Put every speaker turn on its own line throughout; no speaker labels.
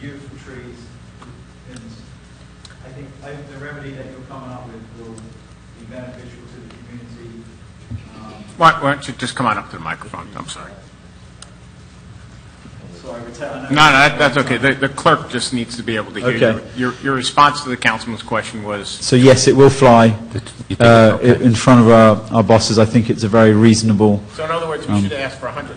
beautiful trees. And I think I- the remedy that you're coming up with will be beneficial to the community. Um,
Why why don't you just come on up to the microphone? I'm sorry.
So I would tell.
No, no, that- that's okay. The the clerk just needs to be able to hear you.
Okay.
Your your response to the councilman's question was,
So yes, it will fly
think
uh, i- in front of our, our bosses. I think it's a very reasonable.
so in other words, we should ask for 100,000.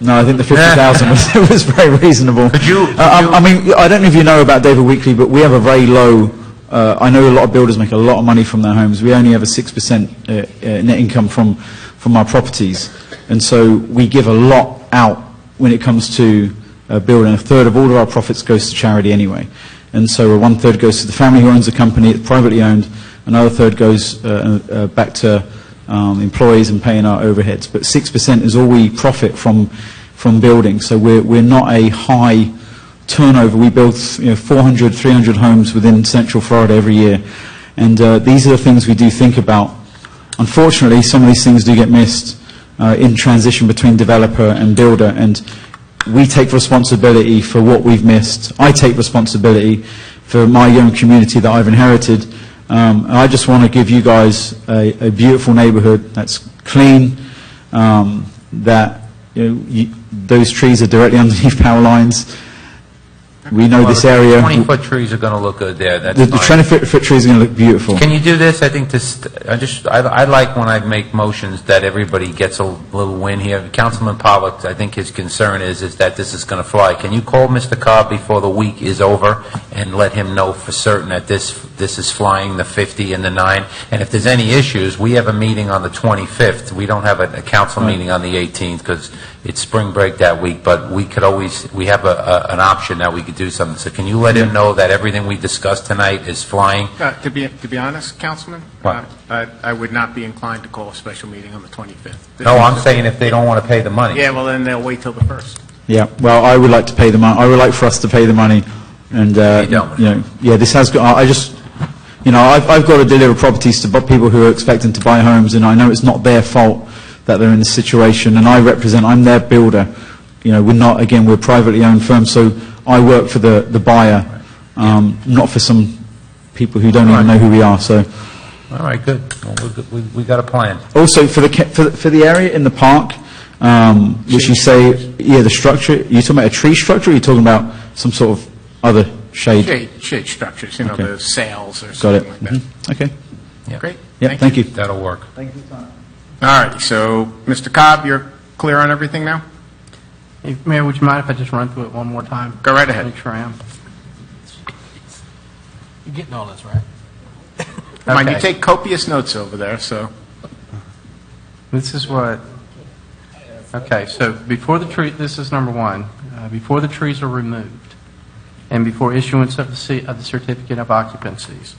No, I think the fifty thousand was, was very reasonable.
Could you- could
Uh, I,
you-
I mean, I don't know if you know about David Weekly, but we have a very low. Uh, I know a lot of builders make a lot of money from their homes. We only have a six percent uh, uh, net income from from our properties, and so we give a lot out when it comes to uh, building. A third of all of our profits goes to charity anyway, and so one third goes to the family who owns the company, it's privately owned. Another third goes uh, uh, back to um, employees and paying our overheads. But 6% is all we profit from, from building. So we're, we're not a high turnover. We build you know, 400, 300 homes within central Florida every year. And uh, these are the things we do think about. Unfortunately, some of these things do get missed uh, in transition between developer and builder. And we take responsibility for what we've missed. I take responsibility for my young community that I've inherited. Um, and I just want to give you guys a, a beautiful neighborhood that's clean, um, that you know, you, those trees are directly underneath power lines. We know this area.
20-foot trees are going to look good there, that's
The, the
fine.
20 foot, foot trees are going to look beautiful.
Can you do this? I think this, I just, I I like when I make motions that everybody gets a little win here. Councilman Pollock, I think his concern is, is that this is going to fly. Can you call Mr. Cobb before the week is over and let him know for certain that this, this is flying, the 50 and the 9? And if there's any issues, we have a meeting on the 25th. We don't have a a council meeting on the 18th because it's spring break that week, but we could always, we have a- a, an option that we could do something. So can you let him know that everything we discussed tonight is flying?
Uh, To be, to be honest, Councilman,
What?
I I would not be inclined to call a special meeting on the 25th.
No, I'm saying if they don't want to pay the money.
Yeah, well, then they'll wait till the 1st.
Yeah, well, I would like to pay the money, I would like for us to pay the money, and, uh,
You don't.
you know, yeah, this has, got. I I just, you know, I've, I've got to deliver properties to bu- people who are expecting to buy homes, and I know it's not their fault that they're in this situation, and I represent, I'm their builder, you know, we're not, again, we're a privately owned firm, so I work for the, the buyer, um, not for some people who don't even know who we are, so.
All right, good. Well, we're good. We we got a plan.
Also, for the, ca- for the- for the area in the park, um, which you say, yeah, the structure, you talking about a tree structure, or you talking about some sort of other shade?
Shade, shade structures, you know,
Okay.
the sails or
Got it?
something like that.
Mhm. Okay.
Yeah.
Great.
Yeah, thank you.
That'll work.
Thank you, Tom.
All right, so, Mr. Cobb, you're clear on everything now?
Hey, Mayor, would you mind if I just run through it one more time?
Go right ahead.
Make sure I am. You're getting all this, right?
Come on, you
Okay.
take copious notes over there, so.
This is what, okay, so before the tree, this is number one, Uh, before the trees are removed and before issuance of the ce- of the certificate of occupancies,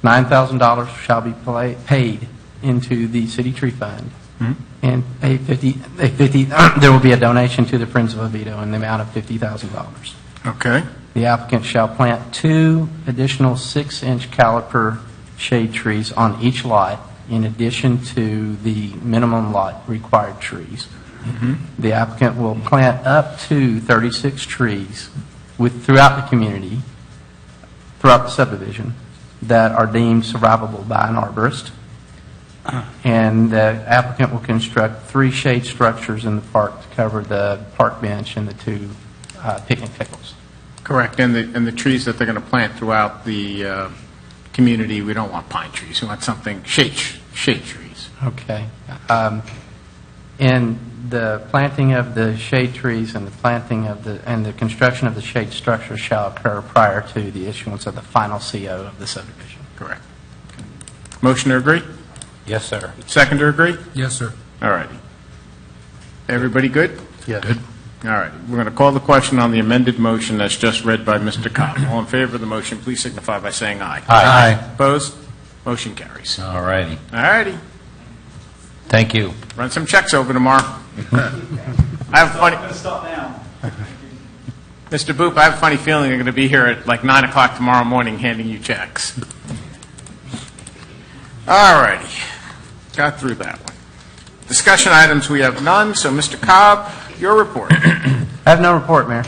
$9,000 shall be pla- paid into the city tree fund.
Hmm?
And a 50, a 50, there will be a donation to the Friends of Oviedo in the amount of $50,000.
Okay.
The applicant shall plant two additional six-inch caliper shade trees on each lot in addition to the minimum lot required trees. The applicant will plant up to 36 trees with, throughout the community, throughout the subdivision, that are deemed survivable by an arborist. And the applicant will construct three shade structures in the park to cover the park bench and the two uh, picnic tables.
Correct, and the, and the trees that they're going to plant throughout the uh, community, we don't want pine trees, we want something, shade, tr- shade trees.
Okay. Um, And the planting of the shade trees and the planting of the, and the construction of the shade structure shall occur prior to the issuance of the final CO of the subdivision.
Correct. Motion to agree?
Yes, sir.
Second to agree?
Yes, sir.
All righty. Everybody good?
Yes.
All right, we're going to call the question on the amended motion that's just read by Mr. Cobb. All in favor of the motion, please signify by saying aye.
Aye.
Opposed? Motion carries. All
All righty.
righty,
Thank you.
run some checks over tomorrow. I have a
I'm
funny,
going to stop now.
Mr. Boop, I have a funny feeling you're going to be here at like 9 o'clock tomorrow morning handing you checks. All righty, got through that one. Discussion items, we have none, so Mr. Cobb, your report.
I have no report, Mayor.